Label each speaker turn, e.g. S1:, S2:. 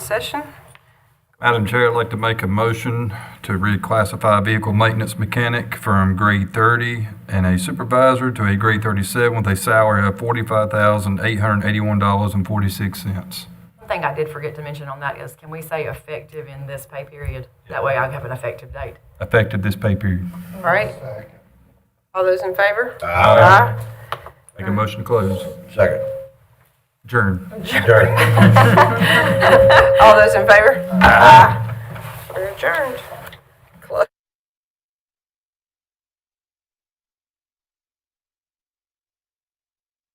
S1: session.
S2: Madam Chair, I'd like to make a motion to reclassify vehicle maintenance mechanic from grade 30 and a supervisor to a grade 37 with a salary of $45,881.46.
S3: One thing I did forget to mention on that is, can we say effective in this pay period? That way I have an effective date.
S2: Effective this pay period.
S3: All right?
S1: All those in favor?
S4: Aye.
S2: Make a motion to close.
S4: Second.
S2: Adjourn.
S4: Adjourn.
S1: All those in favor? Aye. We're adjourned.